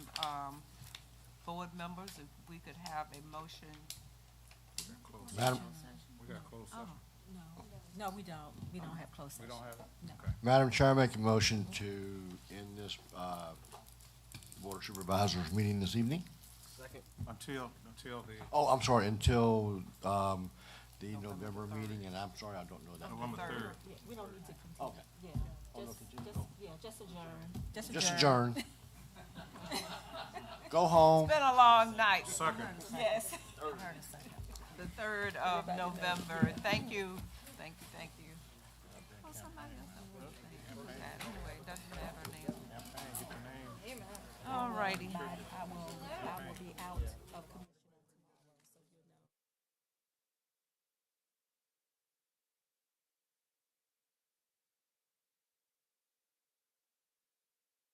um, board members, if we could have a motion. We got closed Madam, session. We got closed session. No, we don't, we don't have closed We session. don't have it? No. Okay. Madam Chair, I make a motion to end this, uh, Board of Supervisors meeting this evening. Until, until the Oh, I'm sorry, until, um, the November meeting, and I'm sorry, I don't know that. November third. third. Yeah, we don't need to continue. Okay, Yeah, Oh, no, just, continue. just, yeah, just adjourn. just adjourn. Go home. Been a long night, Second. yes. The third of November. Thank you, thank you, thank you. Well, somebody else I would think. Anyway, doesn't matter now. Get the name. All righty. I will, I will be out.